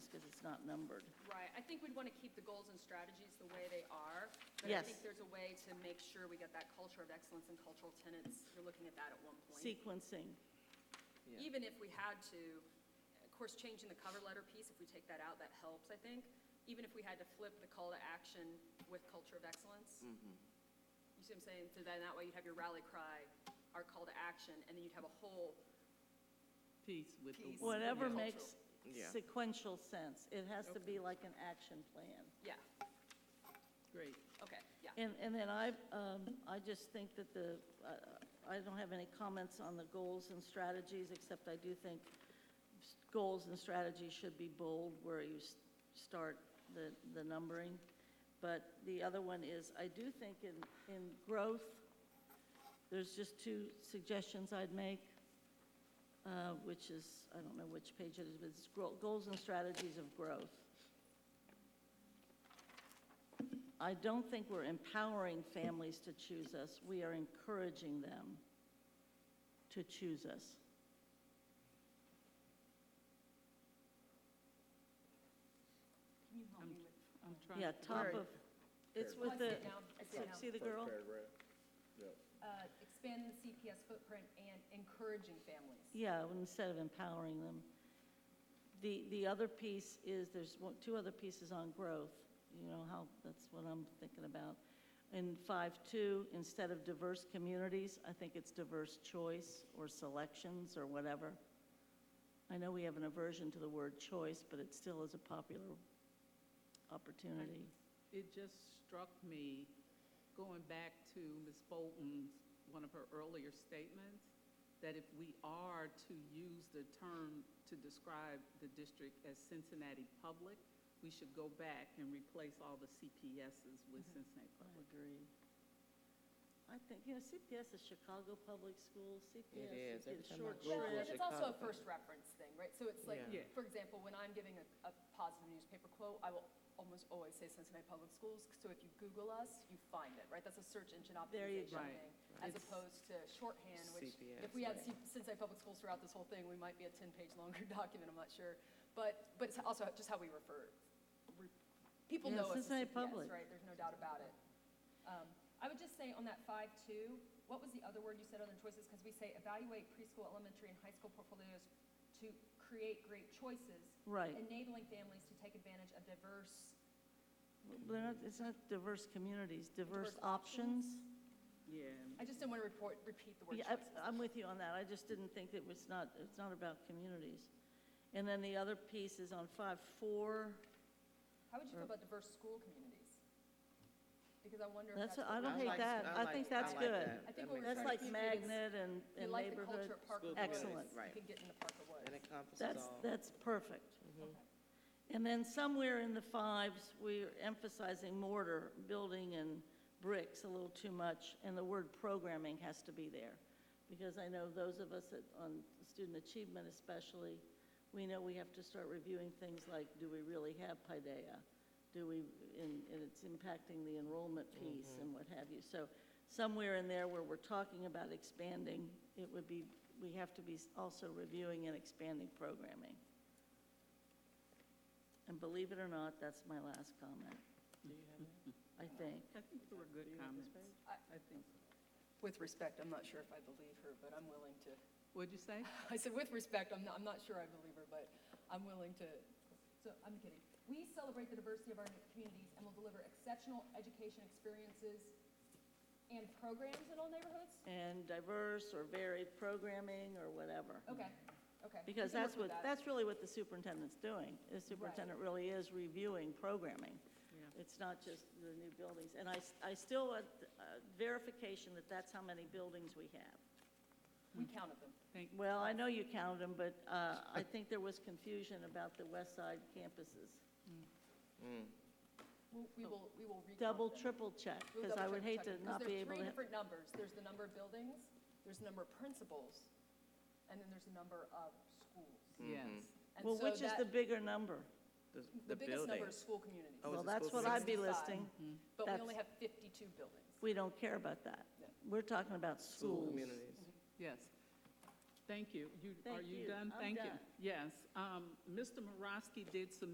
it's not numbered. Right, I think we'd want to keep the goals and strategies the way they are. But I Yes. think there's a way to make sure we get that culture of excellence and cultural tenets. You're looking at that at one point. Sequencing, Yeah. Even if we had to, of course, changing the cover letter piece, if we take that out, that helps, I think. Even if we had to flip the call to action with culture of excellence. You see what I'm saying? So then that way you'd have your rally cry, our call to action, and then you'd have a whole piece with the. piece. one- whatever Yeah. makes Yeah. sequential sense. It has to be like an action plan. Yeah, Great. okay, yeah. And, and then I, um, I just think that the, uh, I don't have any comments on the goals and strategies, except I do think s- goals and strategies should be bold where you s- start the, the numbering. But the other one is, I do think in, in growth, there's just two suggestions I'd make, uh, which is, I don't know which page it is, but it's gro- goals and strategies of growth. I don't think we're empowering families to choose us. We are encouraging them to choose us. I'm I'm trying. Yeah, to- top of, it's Um, with the, I see- see the girl? uh, Expand the CPS footprint and encouraging families. Yeah, instead of empowering them. The, the other piece is, there's one- two other pieces on growth, you know, how, that's what I'm thinking about. In five-two, instead of diverse communities, I think it's diverse choice or selections or whatever. I know we have an aversion to the word choice, but it still is a popular opportunity. It just struck me, going back to Ms. Bolton's, one of her earlier statements, that if we are to use the term to describe the district as Cincinnati Public, we should go back and replace all the CPSs with Cincinnati Public. agree. I think, you know, CPS is Chicago Public Schools, CPS. It you is. get a Every time I short Google Well, Google trip. it, it's also a Chicago. first reference thing, right? So it's like, Yeah. Yeah. for example, when I'm giving a, a positive newspaper quote, I will almost always say Cincinnati Public Schools, so if you Google us, you find it, right? That's a search engine There you optimization go. Right, thing, as It's- opposed to shorthand, which, if CPS, we had right. C- Cincinnati Public Schools throughout this whole thing, we might be a ten-page longer document, I'm not sure. But, but it's also just how we refer, re- people Yeah, know us as Cincinnati CPS, Public. right? There's no doubt about it. Um, I would just say on that five-two, what was the other word you said, other choices? Because we say evaluate preschool, elementary, and high school portfolios to create great choices, Right. enabling families to take advantage of diverse, They're not, it's not diverse communities, diverse Diverse options. options? Yeah. I just didn't want to report, repeat the word Yeah, I- choices. I'm with you on that, I just didn't think it was not, it's not about communities. And then the other piece is on five, four, How would you feel about diverse school community? Because I wonder if that's, that's. I what- don't hate like- that, I I like- think that's like good. that. I That think what we're makes That's trying sense. like to keep it is- magnet and, You and like the neighborhood. culture of Parker School Woods. communities, Excellent. right. You can get into Parker Woods. That encompasses That's, all. that's perfect. Okay. And then somewhere in the fives, we're emphasizing mortar, building and bricks a little too much, and the word programming has to be there. Because I know those of us that, on student achievement especially, we know we have to start reviewing things like, do we really have Paideia? Do we, and, and it's impacting the enrollment piece and what have you. So somewhere in there where we're talking about expanding, it would be, we have to be also reviewing and expanding programming. And believe it or not, that's my last comment, Do you have that? I think. I think they were good comments. I- I think, With respect, I'm not sure if I believe her, but I'm willing to. what'd you say? I said, with respect, I'm not, I'm not sure I believe her, but I'm willing to, so, I'm kidding. We celebrate the diversity of our communities and will deliver exceptional education experiences and programs in all neighborhoods? And diverse or varied programming or whatever. Okay, okay. We Because can work that's with what, that. that's really what the superintendent's doing. The superintendent really is reviewing programming. Yeah. It's not just the new buildings. And I, s- I still want uh, verification that that's how many buildings we have. We counted them. Thank, Well, I know you counted them, but uh, I think there was confusion about the west side campuses. We'll- We will, we will recount them. Double, triple check, We'll because I double would check- hate check to it, 'cause not be able There's three to. different numbers. There's the number of buildings, there's the number of principals, and then there's the number of schools. yes. And Well, so which is that- the bigger number? The- The biggest number buildings. is school communities. Mm-hmm. Oh, Well, is it that's school what I'd be 65. listing. But we That's- only have 52 buildings. We don't care about that. No. We're talking about School schools. communities. Yes. Thank you. You, are Thank you you. done? I'm Thank you. done. Yes. Um, Mr. Morosky did some